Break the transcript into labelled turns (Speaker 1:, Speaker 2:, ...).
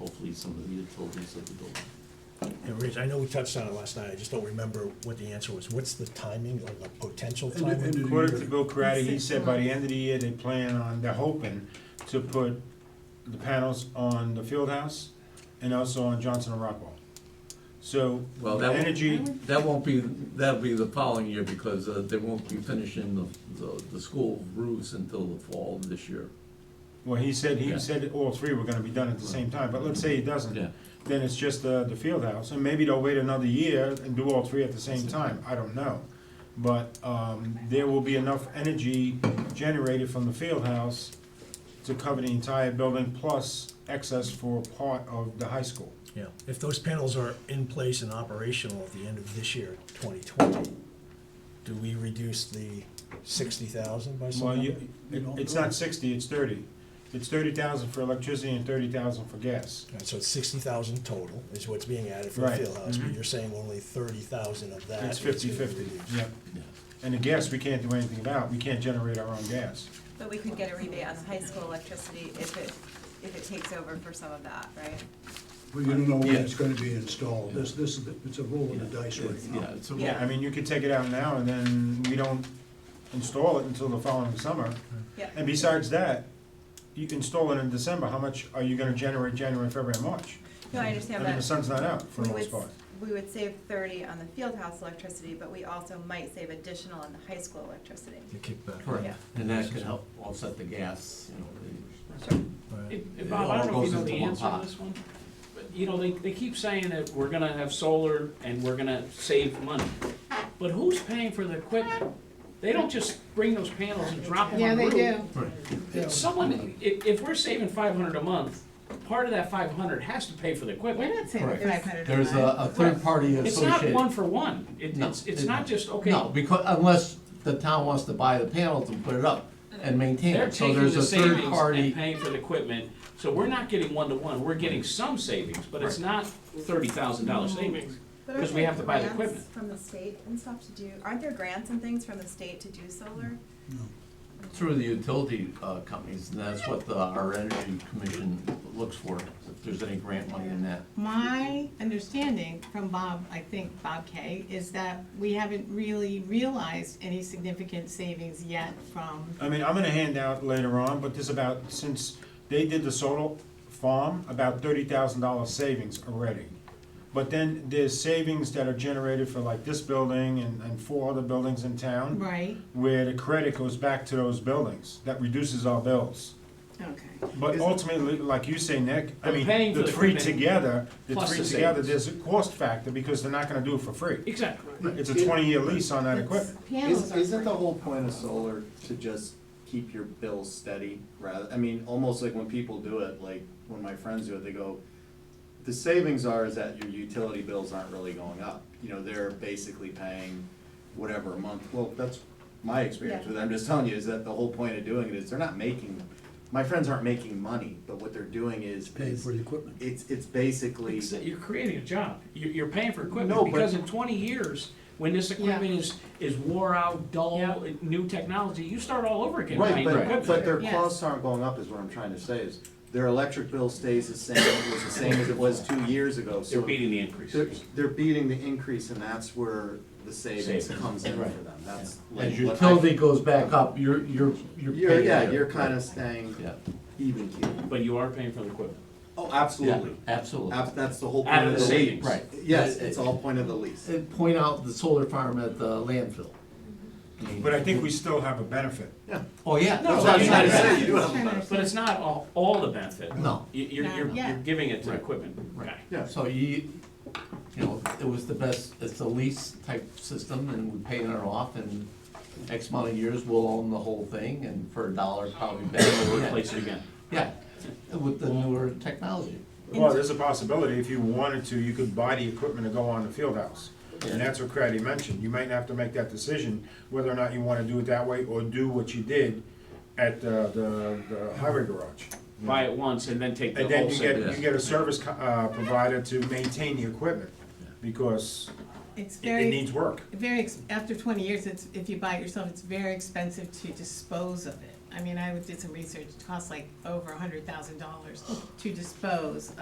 Speaker 1: utilities, some of the utilities of the building.
Speaker 2: And Rich, I know we touched on it last night, I just don't remember what the answer was. What's the timing, or the potential
Speaker 3: End of- end of the
Speaker 2: timing?
Speaker 4: According
Speaker 3: year.
Speaker 4: to Bill Karate, he said by the end of the year, they plan on, they're hoping to put the panels on the field house and also on Johnson and Rockwell. So,
Speaker 5: Well,
Speaker 4: the
Speaker 5: that will-
Speaker 4: energy,
Speaker 5: That won't be, that'll be the following year because uh, they won't be finishing the, the, the school roofs until the fall of this year.
Speaker 4: well, he said,
Speaker 5: Yeah.
Speaker 4: he said all three were gonna be done at the same time, but let's say he doesn't.
Speaker 5: Yeah.
Speaker 4: Then it's just the, the field house, and maybe they'll wait another year and do all three at the same time, I don't know. But, um, there will be enough energy generated from the field house to cover the entire building, plus excess for part of the high school.
Speaker 2: Yeah, if those panels are in place and operational at the end of this year, twenty twenty, do we reduce the sixty thousand by some
Speaker 4: Well,
Speaker 2: number?
Speaker 4: you, it- it's not sixty, it's thirty. It's thirty thousand for electricity and thirty thousand for gas.
Speaker 2: All right, So it's sixty thousand total is what's being added for the
Speaker 4: Right,
Speaker 2: field house, but
Speaker 4: mhm.
Speaker 2: you're saying only thirty thousand of that
Speaker 4: It's
Speaker 2: is being
Speaker 4: fifty-fifty,
Speaker 2: reduced.
Speaker 4: yeah.
Speaker 5: Yeah.
Speaker 4: And the gas, we can't do anything about, we can't generate our own gas.
Speaker 6: But we could get a rebate on the high school electricity if it, if it takes over for some of that, right?
Speaker 3: But you don't know when
Speaker 4: Yeah.
Speaker 3: it's gonna be installed. This, this is, the- it's a roll of the dice right
Speaker 5: It's-
Speaker 3: now.
Speaker 5: Yeah, it's a-
Speaker 6: Yeah.
Speaker 4: I mean, you could take it out now and then we don't install it until the following summer.
Speaker 6: Yeah.
Speaker 4: And besides that, you can install it in December, how much are you gonna generate January, February, and March?
Speaker 6: No, I
Speaker 4: I
Speaker 6: understand
Speaker 4: mean, the
Speaker 6: that.
Speaker 4: sun's not out for
Speaker 6: We
Speaker 4: the
Speaker 6: would,
Speaker 4: most part.
Speaker 6: we would save thirty on the field house electricity, but we also might save additional on the high school electricity.
Speaker 2: The kickback.
Speaker 6: Yeah.
Speaker 5: Correct, and that could help offset the gas, you know.
Speaker 7: So,
Speaker 2: Right.
Speaker 7: if- if
Speaker 5: It
Speaker 7: Bob, I
Speaker 5: all
Speaker 7: don't know if
Speaker 5: goes
Speaker 7: you know
Speaker 5: into
Speaker 7: the
Speaker 5: one
Speaker 7: answer to
Speaker 5: pot.
Speaker 7: this one, but, you know, they, they keep saying that we're gonna have solar and we're gonna save money. But who's paying for the equipment? They don't just bring those panels and drop them
Speaker 8: Yeah,
Speaker 7: on the
Speaker 8: they
Speaker 7: roof.
Speaker 8: do.
Speaker 7: It's Someone, if, if we're saving five hundred a month, part of that five hundred has to pay for the
Speaker 8: We're
Speaker 7: equipment.
Speaker 8: not saving five hundred a
Speaker 5: There's a, a third party
Speaker 7: It's not
Speaker 5: associated.
Speaker 7: one for one, it,
Speaker 5: No,
Speaker 7: it's, it's
Speaker 5: it-
Speaker 7: not just, okay,
Speaker 5: No, because, unless the town wants to buy the panels and put it up and maintain
Speaker 7: They're
Speaker 5: it, so
Speaker 7: taking
Speaker 5: there's
Speaker 7: the
Speaker 5: a third
Speaker 7: savings and
Speaker 5: party.
Speaker 7: paying for the equipment, so we're not getting one-to-one, we're getting some savings, but it's not thirty thousand dollar savings.
Speaker 6: But aren't
Speaker 7: 'Cause we
Speaker 6: there
Speaker 7: have to buy the
Speaker 6: grants
Speaker 7: equipment.
Speaker 6: From the state and stuff to do, aren't there grants and things from the state to do solar?
Speaker 5: Through the utility uh, companies, and that's what the, our energy commission looks for, if there's any grant money in that.
Speaker 8: My understanding from Bob, I think Bob Kay, is that we haven't really realized any significant savings yet from,
Speaker 4: I mean, I'm gonna hand out later on, but there's about, since they did the solar farm, about thirty thousand dollar savings already. But then there's savings that are generated for like this building and, and four other buildings in town,
Speaker 8: right?
Speaker 4: where the credit goes back to those buildings, that reduces our bills.
Speaker 8: Okay.
Speaker 4: But ultimately, like you say, Nick, I
Speaker 7: But
Speaker 4: mean,
Speaker 7: paying for
Speaker 4: the
Speaker 7: the
Speaker 4: three
Speaker 7: equipment
Speaker 4: together, the
Speaker 7: plus
Speaker 4: three
Speaker 7: the
Speaker 4: together,
Speaker 7: savings.
Speaker 4: there's a cost factor, because they're not gonna do it for free.
Speaker 7: Exactly.
Speaker 4: It's a twenty-year lease on that equipment.
Speaker 8: Panels
Speaker 9: Is-
Speaker 8: are
Speaker 9: Isn't the
Speaker 8: free.
Speaker 9: whole point of solar to just keep your bills steady rather, I mean, almost like when people do it, like when my friends do it, they go, the savings are is that your utility bills aren't really going up. You know, they're basically paying whatever a month. Well, that's my experience
Speaker 6: Yeah.
Speaker 9: with it. I'm just telling you is that the whole point of doing it is they're not making, my friends aren't making money, but what they're doing is,
Speaker 3: Paying
Speaker 9: is
Speaker 3: for the equipment.
Speaker 9: it's, it's basically,
Speaker 7: Exa- You're creating a job, you're, you're paying for equipment,
Speaker 9: No, but-
Speaker 7: because in twenty years, when this equipment is, is wore out, dull,
Speaker 8: Yeah.
Speaker 7: new technology, you start all over again
Speaker 9: Right,
Speaker 7: buying new
Speaker 9: but, but
Speaker 7: equipment.
Speaker 9: their
Speaker 8: Yes.
Speaker 9: costs aren't going up, is what I'm trying to say, is their electric bill stays the same, it was the same as it was two years ago, so.
Speaker 7: They're beating the
Speaker 9: They're,
Speaker 7: increases.
Speaker 9: they're beating the increase, and that's where the savings
Speaker 7: Savings.
Speaker 9: comes in for
Speaker 5: Right.
Speaker 9: them, that's. like
Speaker 5: As
Speaker 9: what I-
Speaker 5: utility goes back up, you're, you're, you're.
Speaker 9: You're,
Speaker 5: paying
Speaker 9: yeah,
Speaker 5: for it.
Speaker 9: you're kinda staying
Speaker 5: Yeah,
Speaker 9: even keel.
Speaker 7: But you are paying for the equipment.
Speaker 9: Oh,
Speaker 5: yeah,
Speaker 9: absolutely,
Speaker 5: absolutely.
Speaker 9: Ab- that's the whole
Speaker 7: Out
Speaker 9: point
Speaker 7: of
Speaker 9: of
Speaker 7: the
Speaker 9: the lease.
Speaker 7: savings.
Speaker 5: Right.
Speaker 9: Yes,
Speaker 5: Uh,
Speaker 9: it's all point of the lease.
Speaker 5: uh, Point out the solar farm at the landfill.
Speaker 4: But I think we still have a benefit.
Speaker 5: Oh, yeah.
Speaker 7: No,
Speaker 9: That's what I'm
Speaker 7: you're
Speaker 9: trying to
Speaker 7: not-
Speaker 9: say, you do have a
Speaker 8: Kinda
Speaker 9: benefit.
Speaker 7: But it's not all, all the benefit.
Speaker 5: No.
Speaker 7: You, you're,
Speaker 8: Not
Speaker 7: you're, you're
Speaker 8: yet.
Speaker 7: giving it to the
Speaker 5: Right.
Speaker 7: equipment guy.
Speaker 9: Yeah.
Speaker 5: So you, you know, it was the best, it's a lease type system and we pay it off and X amount of years we'll own the whole thing and for a dollar probably better.
Speaker 7: We'll replace it again.
Speaker 5: Yeah, with the newer technology.
Speaker 4: Well, there's a possibility, if you wanted to, you could buy the equipment to go on the field house. And that's what Craddy mentioned, you might have to make that decision, whether or not you wanna do it that way, or do what you did at the, the, the highway garage.
Speaker 7: Buy it once and then take the
Speaker 4: And
Speaker 7: whole
Speaker 4: then you get,
Speaker 7: savings.
Speaker 4: you get a service, co- uh, provider to maintain the equipment, because
Speaker 8: It's
Speaker 4: it, it
Speaker 8: very,
Speaker 4: needs work.
Speaker 8: very, ex- after twenty years, it's, if you buy it yourself, it's very expensive to dispose
Speaker 4: Oh.
Speaker 8: of it. I mean, I did some research, it costs like over a hundred thousand dollars to dispose